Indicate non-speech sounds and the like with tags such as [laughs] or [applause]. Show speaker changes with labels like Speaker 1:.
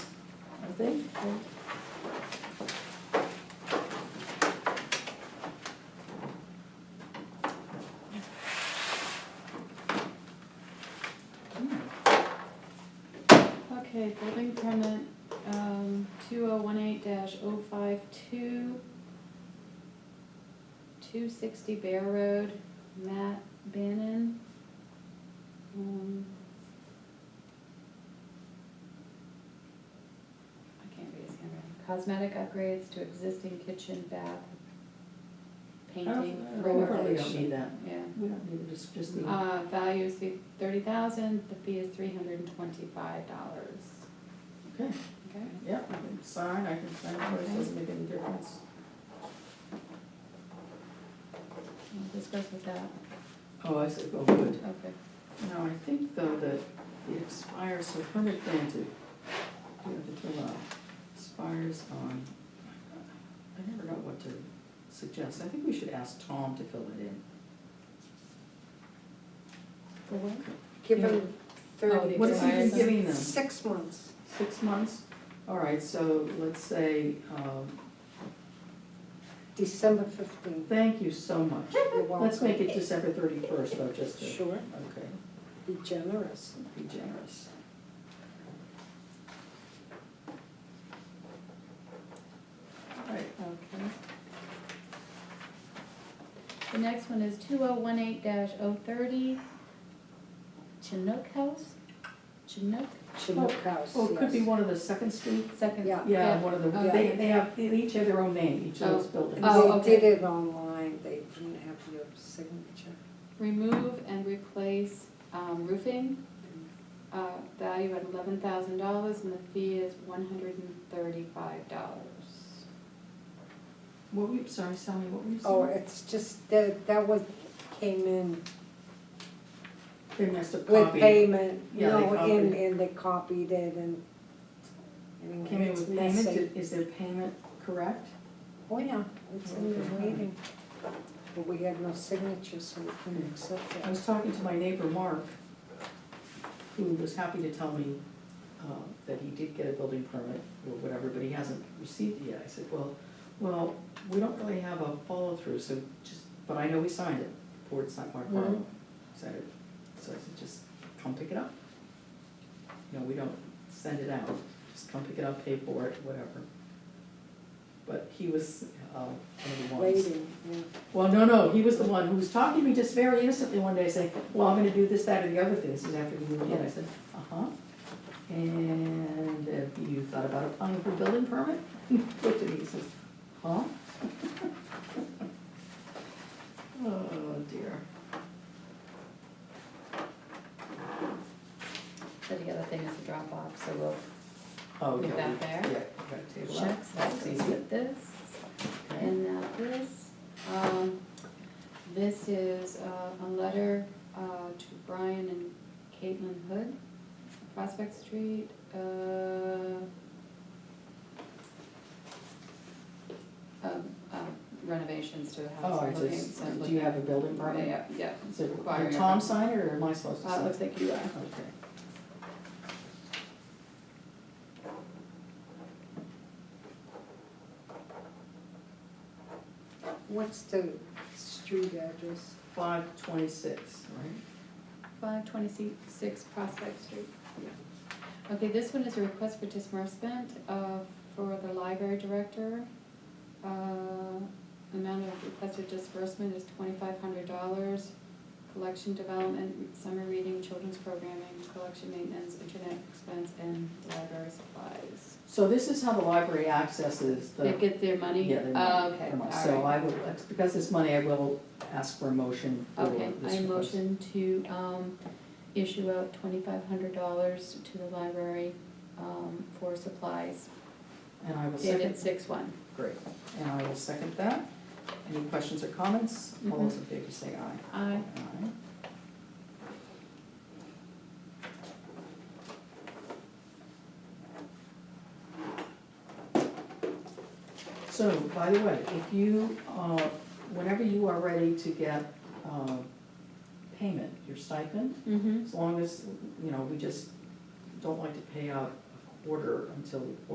Speaker 1: thing.
Speaker 2: Okay, building permit, um, two oh one eight dash oh five two. Two sixty Bear Road, Matt Bannon. Um, I can't read his handwriting, cosmetic upgrades to existing kitchen, bath,
Speaker 1: Oh,
Speaker 2: painting,
Speaker 1: We
Speaker 2: floor
Speaker 1: probably don't
Speaker 2: finish.
Speaker 1: need that.
Speaker 2: Yeah.
Speaker 1: We don't need it, it's just the,
Speaker 2: Uh, value is thirty thousand, the fee is three hundred and twenty-five dollars.
Speaker 1: okay,
Speaker 2: Okay.
Speaker 1: yeah, I can sign, I can sign, it, it doesn't make any difference.
Speaker 2: We'll discuss with that,
Speaker 1: Oh, I said, oh, good.
Speaker 2: okay.
Speaker 1: Now, I think though that it expires, so permit granted, you have to fill out, expires on, I never know what to suggest, I think we should ask Tom to fill it in.
Speaker 2: For what?
Speaker 3: Give them thirty.
Speaker 2: Oh,
Speaker 1: What is he been
Speaker 2: Expires on-
Speaker 1: giving them,
Speaker 3: Six months.
Speaker 1: six months? All right, so let's say, um,
Speaker 3: December fifteenth.
Speaker 1: thank you so much. Let's make it December thirty-first though, just to,
Speaker 3: Sure,
Speaker 1: okay,
Speaker 3: be generous.
Speaker 1: be generous. All right,
Speaker 2: Okay. The next one is two oh one eight dash oh thirty, Chinook House, Chinook,
Speaker 3: Chinook House,
Speaker 1: Oh, it could be
Speaker 3: yes.
Speaker 1: one of the Second Street,
Speaker 2: second.
Speaker 3: Yeah.
Speaker 1: yeah, one of the,
Speaker 2: Yeah.
Speaker 1: they, they have, they each have their own name, each of those buildings.
Speaker 2: Oh,
Speaker 3: And
Speaker 2: okay.
Speaker 3: they did it online, they didn't have your signature.
Speaker 2: Remove and replace, um, roofing, uh, value at eleven thousand dollars and the fee is one hundred and thirty-five dollars.
Speaker 1: What were you, sorry, Sally, what were you
Speaker 3: Oh,
Speaker 1: saying?
Speaker 3: it's just, that, that was, came in
Speaker 1: They must have
Speaker 3: with
Speaker 1: copied,
Speaker 3: payment,
Speaker 1: Yeah, they
Speaker 3: no,
Speaker 1: copied.
Speaker 3: and, and they copied it and. anyway,
Speaker 1: came in
Speaker 3: it's
Speaker 1: with payment,
Speaker 3: messy.
Speaker 1: Did- is their payment correct?
Speaker 3: Oh, yeah, it's in the waiting, but we had no signature, so we couldn't accept
Speaker 1: I
Speaker 3: it.
Speaker 1: was talking to my neighbor Mark, who was happy to tell me uh, that he did get a building permit or whatever, but he hasn't received it yet. I said, well, well, we don't really have a follow-through, so just, but I know we signed it, Board signed Mark Carlo.
Speaker 3: Mhm.
Speaker 1: So, so I said, just come pick it up. No, we don't send it out, just come pick it up, pay for it, whatever. But he was uh, one of the ones.
Speaker 3: Waiting, yeah.
Speaker 1: Well, no, no, he was the one who was talking to me just very innocently one day, saying, well, I'm gonna do this, that, or the other thing, this is after we moved in, I said, uh-huh. And have you thought about applying for a building permit? [laughs] He Looked at me, he says, huh? [laughs] Oh, dear.
Speaker 2: So the other thing is the drop off, so we'll
Speaker 1: Oh,
Speaker 2: Put
Speaker 1: yeah,
Speaker 2: that
Speaker 1: we-
Speaker 2: there.
Speaker 1: Yeah, we gotta table
Speaker 2: check,
Speaker 1: that.
Speaker 2: so
Speaker 1: That's easy.
Speaker 2: with this.
Speaker 1: Okay.
Speaker 2: And now this, um, this is uh, a letter, uh, to Brian and Caitlin Hood, Prospect Street, uh. Of, um, renovations to the
Speaker 1: Oh,
Speaker 2: house,
Speaker 1: all
Speaker 2: we're
Speaker 1: right, so
Speaker 2: looking,
Speaker 1: it's-
Speaker 2: so
Speaker 1: do you
Speaker 2: looking.
Speaker 1: have a building permit?
Speaker 2: Yeah, yeah,
Speaker 1: Is it,
Speaker 2: Requiring
Speaker 1: did
Speaker 2: a-
Speaker 1: Tom sign it, or am I supposed to
Speaker 2: uh,
Speaker 1: sign?
Speaker 2: looks
Speaker 1: it?
Speaker 2: like you are.
Speaker 1: Okay.
Speaker 3: What's the street address?
Speaker 1: Five twenty-six, right?
Speaker 2: Five twenty-six Prospect Street. Okay, this one is a request for disbursement uh, for the library director. Uh, Amount of requested disbursement is twenty-five hundred dollars. Collection development, summer reading, children's programming, collection maintenance, internet expense, and library supplies.
Speaker 1: So this is how the library accesses the.
Speaker 2: They get their money?
Speaker 1: Yeah, they're
Speaker 2: Oh,
Speaker 1: not
Speaker 2: Okay,
Speaker 1: from
Speaker 2: all
Speaker 1: us. So
Speaker 2: right.
Speaker 1: I will, because it's money, I will ask for a motion for this
Speaker 2: Okay,
Speaker 1: request.
Speaker 2: I motion to um, issue out twenty-five hundred dollars to the library um, for supplies,
Speaker 1: And I will
Speaker 2: dated
Speaker 1: second,
Speaker 2: six one.
Speaker 1: great, and I will second that. Any questions or comments? All those in favor say aye.
Speaker 2: Aye.
Speaker 1: Aye. So, by the way, if you, uh, whenever you are ready to get uh, payment, your stipend,
Speaker 2: Mm-hmm.
Speaker 1: As long as, you know, we just don't like to pay out a quarter until,